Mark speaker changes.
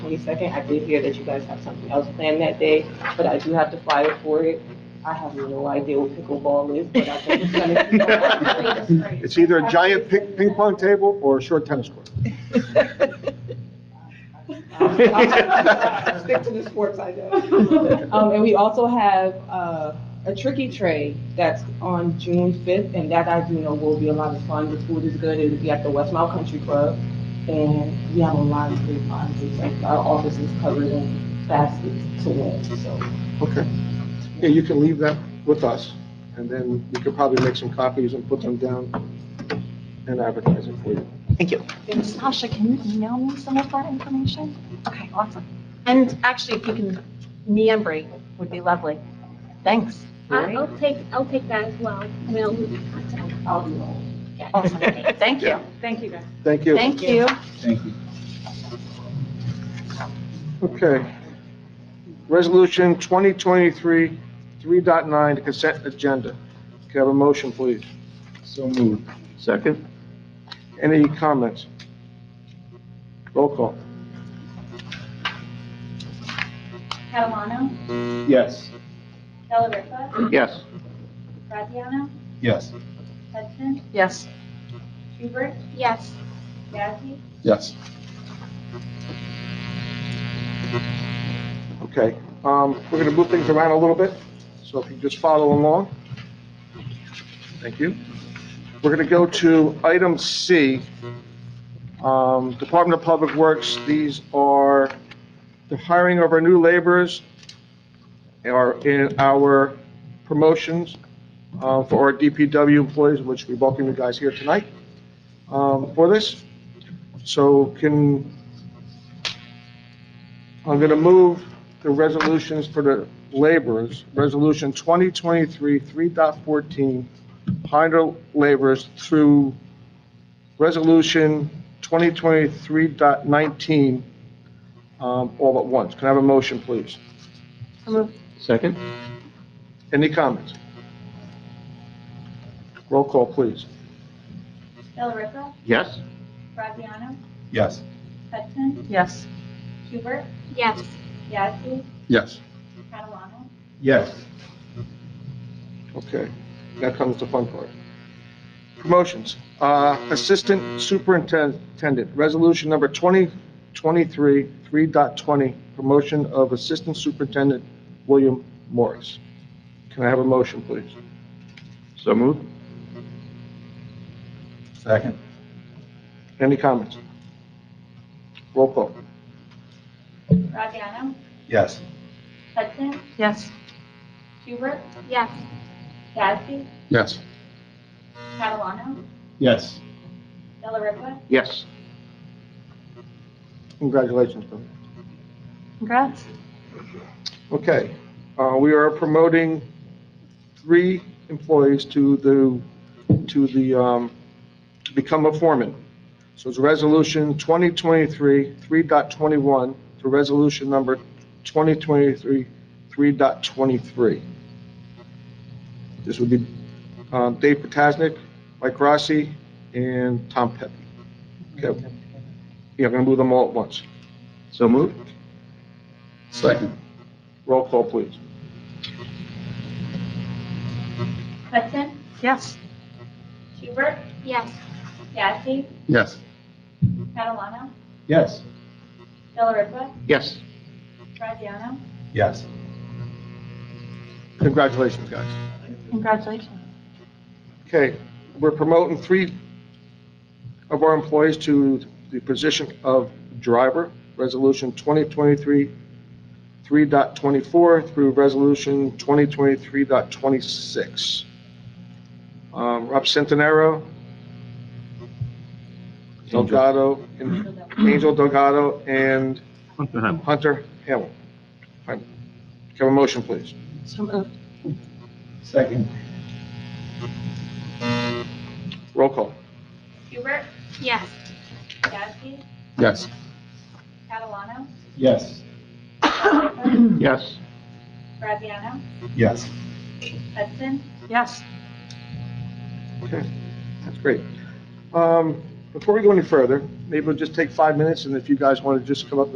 Speaker 1: twenty-second. I did hear that you guys have something else planned that day, but I do have to flyer for it. I have no idea what pickleball is, but I think it's gonna be.
Speaker 2: It's either a giant ping ping pong table or a short tennis court.
Speaker 1: Stick to the sports I know. Um, and we also have, uh, a tricky tray that's on June fifth, and that I do know will be a lot of fun. The food is good, it'll be at the West Mile Country Club. And we have a lot of great prizes, like our office is covered in baskets to win, so.
Speaker 2: Okay. Yeah, you can leave that with us, and then we could probably make some copies and put them down and advertise it for you.
Speaker 3: Sasha, can you email me some of that information? Okay, awesome. And actually, if you can, meambry would be lovely. Thanks.
Speaker 4: I- I'll take, I'll take that as well. I mean, I'll lose my contact. I'll do all.
Speaker 3: Awesome. Thank you.
Speaker 1: Thank you, guys.
Speaker 2: Thank you.
Speaker 3: Thank you.
Speaker 5: Thank you.
Speaker 2: Okay. Resolution 2023, 3.9, the consent agenda. Can I have a motion, please?
Speaker 5: So moved.
Speaker 2: Second. Any comments? Roll call.
Speaker 6: Catalano,
Speaker 5: Yes.
Speaker 6: Delariva,
Speaker 2: Yes.
Speaker 6: Graziano,
Speaker 5: Yes.
Speaker 6: Hudson,
Speaker 3: Yes.
Speaker 6: Hubert,
Speaker 4: Yes,
Speaker 6: Yazdi,
Speaker 5: Yes.
Speaker 2: Okay, um, we're gonna move things around a little bit, so if you just follow along. Thank you. We're gonna go to item C, um, Department of Public Works, these are the hiring of our new laborers and our, in our promotions, uh, for our DPW employees, which we welcome you guys here tonight, um, for this. So can, I'm gonna move the resolutions for the laborers, Resolution 2023, 3.14, hire laborers through Resolution 2023.19, um, all at once. Can I have a motion, please?
Speaker 7: Second?
Speaker 2: Any comments? Roll call, please.
Speaker 6: Delariva,
Speaker 7: Yes?
Speaker 6: Graziano,
Speaker 5: Yes.
Speaker 6: Hudson,
Speaker 3: Yes.
Speaker 6: Hubert,
Speaker 4: yes,
Speaker 6: Yazdi,
Speaker 5: Yes.
Speaker 6: Catalano,
Speaker 5: Yes.
Speaker 2: Okay, now comes the fun part. Promotions. Uh, Assistant Superintendent, Resolution Number 2023, 3.20, promotion of Assistant Superintendent William Morris. Can I have a motion, please?
Speaker 7: So moved?
Speaker 5: Second.
Speaker 2: Any comments? Roll call.
Speaker 6: Graziano,
Speaker 5: Yes.
Speaker 6: Hudson,
Speaker 3: Yes.
Speaker 6: Hubert,
Speaker 4: yes,
Speaker 6: Yazdi,
Speaker 2: Yes.
Speaker 6: Catalano,
Speaker 5: Yes.
Speaker 6: Delariva,
Speaker 7: Yes.
Speaker 2: Congratulations, Bill.
Speaker 3: Congrats.
Speaker 2: Okay, uh, we are promoting three employees to the, to the, um, to become a foreman. So it's Resolution 2023, 3.21 to Resolution Number 2023, 3.23. This would be um, Dave Potasnik, Mike Rossi, and Tom Pepe. Okay. Yeah, I'm going to move them all at once.
Speaker 7: So moved?
Speaker 5: Second.
Speaker 2: Roll call, please.
Speaker 6: Hudson,
Speaker 3: Yes.
Speaker 6: Hubert,
Speaker 4: yes,
Speaker 6: Yazdi,
Speaker 5: Yes.
Speaker 6: Catalano,
Speaker 5: Yes.
Speaker 6: Delariva,
Speaker 7: Yes.
Speaker 6: Graziano,
Speaker 5: Yes.
Speaker 2: Congratulations, guys.
Speaker 3: Congratulations.
Speaker 2: Okay, we're promoting three of our employees to the position of driver, Resolution 2023, 3.24 through Resolution 2023.26. Um, Rob Centonero,
Speaker 7: Angel.
Speaker 2: Delgado, and Angel Delgado, and Hunter Hamel. Can I have a motion, please?
Speaker 3: So moved.
Speaker 5: Second.
Speaker 2: Roll call.
Speaker 6: Hubert,
Speaker 4: yes,
Speaker 6: Yazdi,
Speaker 5: Yes.
Speaker 6: Catalano,
Speaker 5: Yes.
Speaker 6: Delariva,
Speaker 7: Yes.
Speaker 6: Graziano,
Speaker 5: Yes.
Speaker 6: Hudson,
Speaker 3: Yes.
Speaker 2: Okay, that's great. Um, Before we go any further, maybe we'll just take five minutes, and if you guys want to just come up